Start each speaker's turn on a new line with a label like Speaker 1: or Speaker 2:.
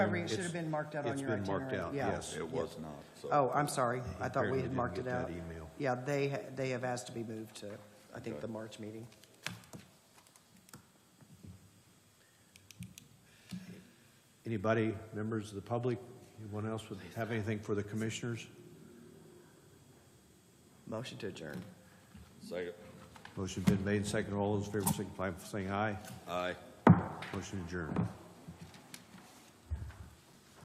Speaker 1: It should have been marked out on your itinerary.
Speaker 2: It's been marked out,
Speaker 1: Yeah.
Speaker 2: yes.
Speaker 3: It was not, so.
Speaker 1: Oh, I'm sorry. I thought we
Speaker 2: Apparently
Speaker 1: had
Speaker 2: didn't
Speaker 1: marked it
Speaker 2: get that
Speaker 1: out.
Speaker 2: email.
Speaker 1: Yeah, they, ha- they have asked to be moved to, I think, the March meeting.
Speaker 2: Anybody, members of the public, anyone else would have anything for the commissioners?
Speaker 1: Motion to adjourn.
Speaker 3: Second.
Speaker 2: Motion been made, second. All those in favor signify by saying aye.
Speaker 3: Aye.
Speaker 2: Motion adjourned.